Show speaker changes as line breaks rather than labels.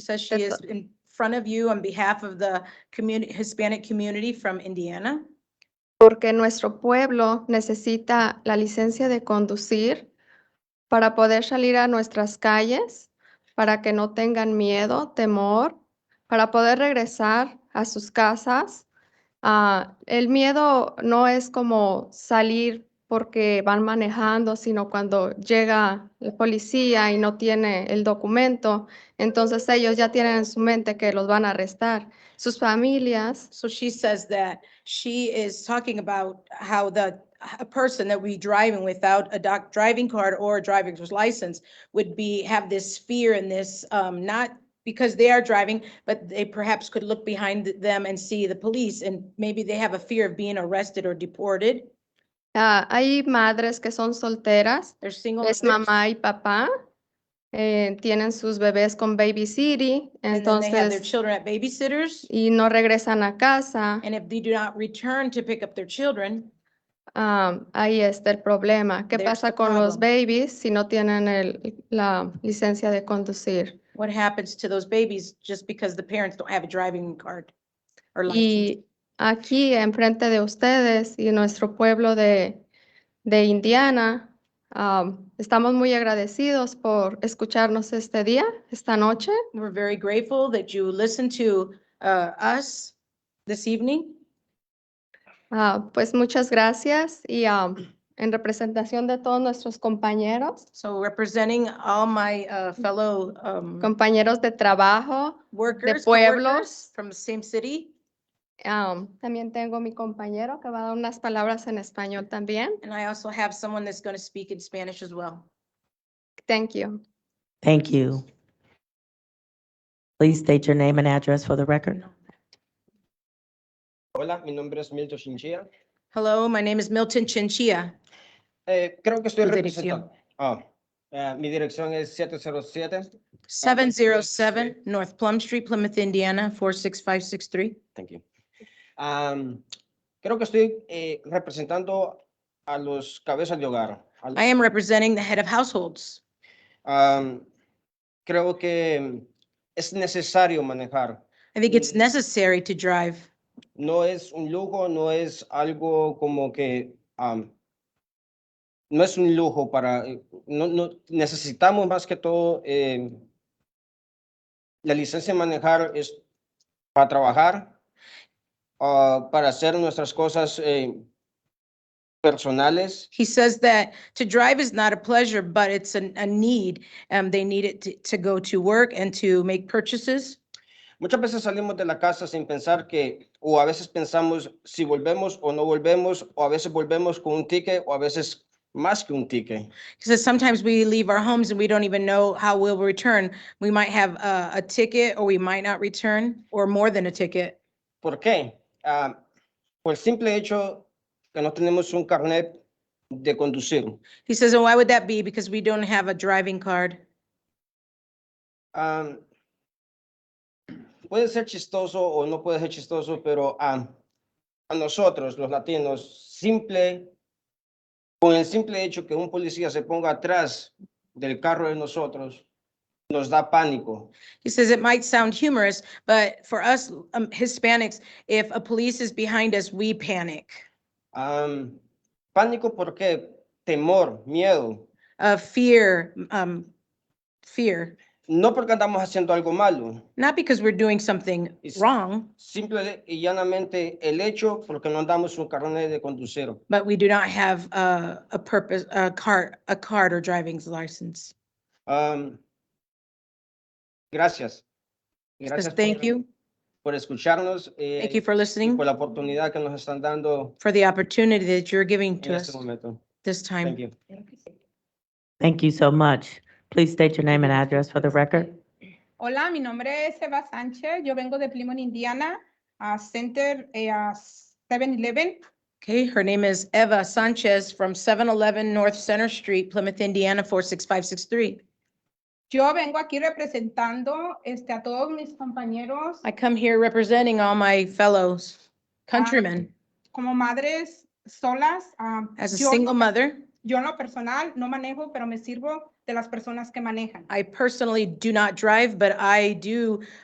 says she is
That's-
in front of you on behalf of the community, Hispanic community from Indiana.
porque nuestro pueblo necesita la licencia de conducir para poder salir a nuestras calles, para que no tengan miedo, temor, para poder regresar a sus casas. Ah, el miedo no es como salir porque van manejando, sino cuando llega la policía y no tiene el documento, entonces ellos ya tienen en su mente que los van a arrestar. Sus familias
So she says that she is talking about how the, a person that we driving without a doc, driving card or a driver's license would be, have this fear and this, um, not because they are driving, but they perhaps could look behind them and see the police and maybe they have a fear of being arrested or deported.
Ah, hay madres que son solteras,
They're single.
es
mothers,
mamá y papá, eh, tienen sus bebés con Baby City,
And then they have their
entonces,
children at babysitters.
y no regresan a casa.
And if they do not return to pick up their children,
ah, ahí está el problema. ¿Qué
There's
pasa
the
con los babies si no tienen el- la licencia de conducir?
what happens to those babies just because the parents don't have a driving card or license?
Y aquí enfrente de ustedes y nuestro pueblo de, de Indiana, ah, estamos muy agradecidos por escucharnos este día, esta noche.
We're very grateful that you listened to uh, us this evening.
Ah, pues muchas gracias y ah, en representación de todos nuestros compañeros,
So representing all my uh, fellow um,
compañeros de trabajo,
workers,
pueblos.
coworkers from the same city.
ah, también tengo mi compañero que va a dar unas palabras en español también.
And I also have someone that's going to speak in Spanish as well.
Thank you.
Thank you. Please state your name and address for the record.
Hola, mi nombre es Milton Chinchilla.
Hello, my name is Milton Chinchilla.
Eh, creo que estoy
Tu dirección.
representando. Ah, eh, mi dirección es 707.
707 North Plum Street, Plymouth, Indiana, 46563.
Thank you. Am, creo que estoy eh, representando a los cabezas de hogar. Al-
I am representing the head of households.
am, creo que es necesario manejar.
I think it's
Mm.
necessary to drive.
No es un lujo, no es algo como que am, no es un lujo para. eh, No, no- necesitamos más que todo eh, la licencia de manejar es para trabajar, ah, para hacer nuestras cosas eh, personales.
He says that to drive is not a pleasure, but it's an- a need. Um, They need it to- to go to work and to make purchases.
Muchas veces salimos de la casa sin pensar que, o a veces pensamos si volvemos o no volvemos, o a veces volvemos con un ticket, o a veces más que un ticket.
He says sometimes we leave our homes and we don't even know how we'll return. We might have a a ticket or we might not return, or more than a ticket.
¿Por qué? Ah, por el simple hecho que no tenemos un carnet de conducir.
He says, and why would that be? Because we don't have a driving card.
Ah, puede ser chistoso o no puede ser chistoso, pero ah, a nosotros, los latinos, simple, con el simple hecho que un policía se ponga atrás del carro de nosotros, nos da pánico.
He says it might sound humorous, but for us um, Hispanics, if a police is behind us, we panic.
Ah, pánico porque temor, miedo.
Uh, fear, um, fear,
No porque andamos haciendo algo malo,
not because we're doing something
Is-
wrong,
Simple y llanamente el hecho porque no andamos un carnet de conducir.
but we do not have uh, a purpose, a card, a card or driving's license.
Am, gracias.
He says,
Gracias
thank
por,
you,
por escucharnos eh,
thank you for
y
listening,
por la oportunidad que nos están dando
for the opportunity that you're giving
en
to
este
us
momento.
this time.
Thank you.
Thank you so much. Please state your name and address for the record.
Hola, mi nombre es Eva Sánchez. Yo vengo de Plymouth, Indiana, a Center, eh, a 7-Eleven.
Okay, her name is Eva Sanchez from 711 North Center Street, Plymouth, Indiana, 46563.
Yo vengo aquí representando este, a todos mis compañeros
I come here representing all my fellows countrymen.
como madres solas. ah,
As a
yo,
single mother,
yo en lo personal no manejo, pero me sirvo de las personas que manejan.
I personally do not drive, but I do